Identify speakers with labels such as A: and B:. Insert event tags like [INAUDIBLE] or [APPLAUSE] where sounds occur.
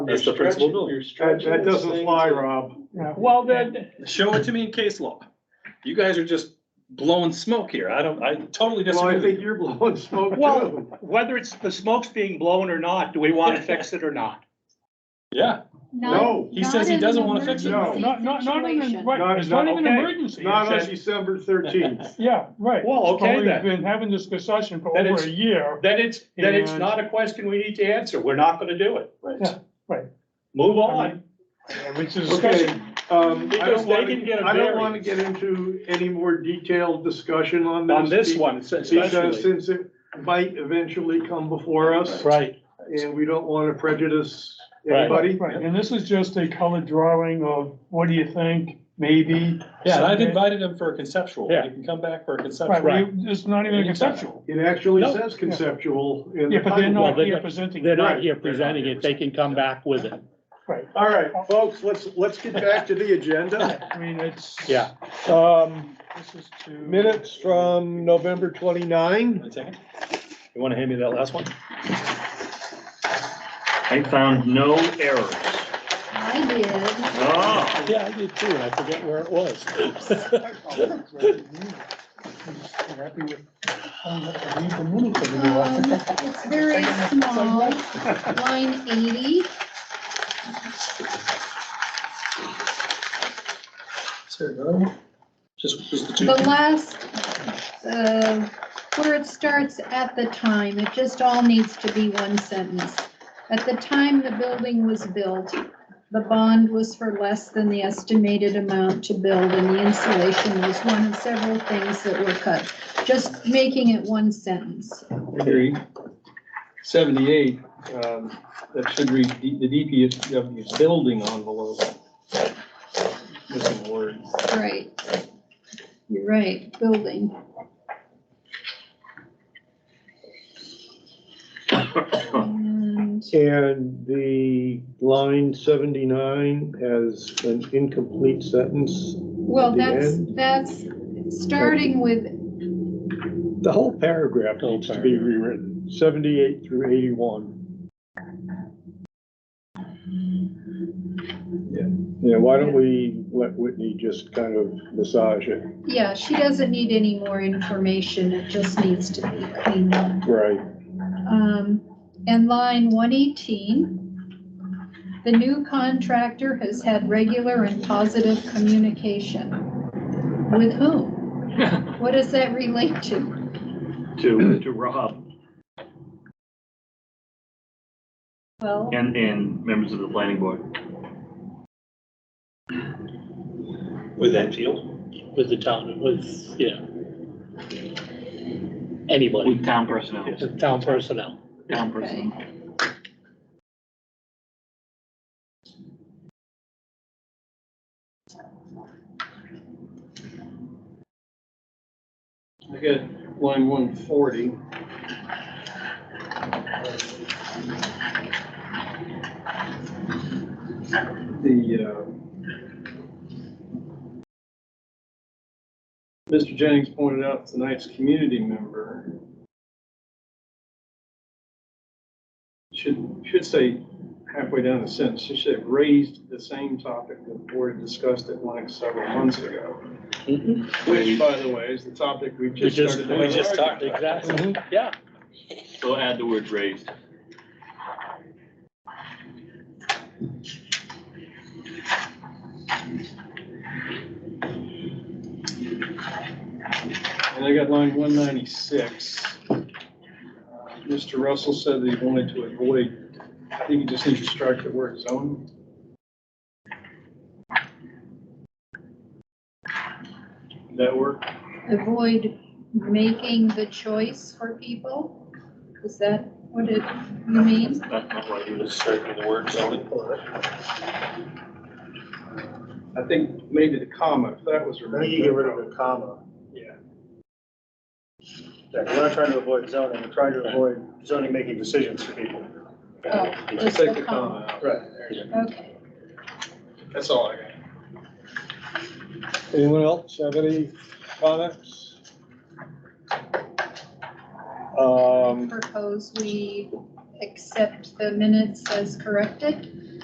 A: That's the principal building.
B: You're
C: That,
B: stretching
C: that
B: this
C: doesn't
B: thing
C: fly,
B: to-
C: Rob.
D: Well, then,
A: Show it to me in case law. You guys are just blowing smoke here. I don't, I totally
C: Well,
A: disagree.
C: I
A: with you.
C: think you're blowing smoke
D: Well-
C: too.
D: whether it's, the smoke's being blown or not, do we want to fix it or not?
A: Yeah,
C: No.
A: He says he doesn't wanna fix it.
C: No.
E: Not, not, not in an emergency
C: Not-
E: situation. It's
C: not-
E: not even
C: okay.
E: an emergency.
C: Not
E: It's
C: on
E: just-
C: December thirteenth.
D: [LAUGHS]
E: Yeah, right.
D: Well, okay
E: But
D: then.
E: We've been having this discussion for
D: Then
E: over
D: it's-
E: a year.
D: Then it's, then it's
E: And-
D: not a question we need to answer. We're not gonna do it.
E: Yeah, right.
D: Move on.
E: and It's a
C: Okay,
E: discussion.
C: um, I
D: Because
C: don't
D: they can
C: wanna,
D: get a
C: I don't wanna
D: variance.
C: get into any more detailed discussion on this.
D: On this
C: be-
D: one
C: Because uh,
D: especially.
C: since it might eventually come before us,
D: Right.
C: and we don't wanna prejudice
D: Right.
C: anybody.
E: Right, and this is just a colored drawing of what do you think, maybe?
A: yeah, and I've
E: someday.
A: invited him for a conceptual.
D: Yeah.
A: You can come back for a
E: Right,
A: conceptual.
E: we- it's not even conceptual.
C: It actually
D: No.
C: says conceptual in the
E: Yeah, but they're
C: title.
E: not
F: they're
E: here
F: not-
E: presenting.
F: They're
C: Right.
F: not here presenting it, they can come back with it.
E: Right,
C: All right, folks, let's, let's get back to the agenda.
E: I mean, it's.
F: Yeah.
C: Um,
E: This is to.
C: minutes
E: [LAUGHS]
C: from November twenty-nine.
A: Wait a second. You wanna hand me that last one?
F: I found no
A: [COUGHS]
F: errors. [COUGHS]
G: I did.
F: Oh. Yeah, I did too, and I forget where
D: [LAUGHS]
F: it was.
E: Happy with. I'm gonna read the minutes of the new
G: Um,
E: one.
G: It's very small, line eighty.
A: Just, just the two.
G: The last, uh, where it starts at the time, it just all needs to be one sentence. At the time the building was built, the bond was for less than the estimated amount to build and the insulation was one of several things that were cut. Just making it one sentence.
B: Three, seventy-eight, um, that should read D- the DPW building envelope. Missing word.
G: Right. You're right, building.
A: Oh.
G: And
C: And the line seventy-nine has an incomplete sentence.
G: Well,
C: the
G: that's,
C: end?
G: that's starting with,
C: The whole paragraph needs to be rewritten, seventy-eight through eighty-one. Yeah, yeah, why don't we let Whitney just kind of massage it,
G: yeah, she doesn't need any more information, it just needs to be cleaned up.
C: right?
G: Um, and line one eighteen. The new contractor has had regular and positive communication. With whom?
C: [LAUGHS]
G: What does that relate to?
F: To, to Rob
G: Well,
F: and, and members of the planning board.
A: With Enfield?
H: with the town, with, you know, anybody,
F: With town personnel.
H: the town personnel.
F: Town
G: okay.
F: personnel.
B: I got line one forty. The, uh, Mr. Jennings pointed out tonight's community member. Should, should say halfway down the sentence, she should have raised the same topic that the board discussed at length several months ago.
D: Mm-hmm.
B: Which, by the way, is the topic we
H: We
B: just
H: just,
B: started.
H: we just talked,
B: about.
H: exactly,
D: Mm-hmm.
H: yeah.
F: So add the word raised.
B: And I got line one ninety-six. Mr. Russell said that he wanted to avoid, I think he just needs to strike the word zone. Did That work?
G: avoid making the choice for people? Is that what it, you mean?
F: That's not what you just
A: the word zoning.
B: I think maybe the comma, if that was removed.
I: You get rid of the comma.
B: Yeah.
I: Yeah, we're not trying to avoid zoning, we're trying to avoid zoning making decisions for people.
G: Oh, just
B: Just
G: the
B: take the comma out.
I: Right.
G: Okay,
B: That's all I got.
C: Anyone else have any comments? Um,
G: propose we accept the minutes as corrected?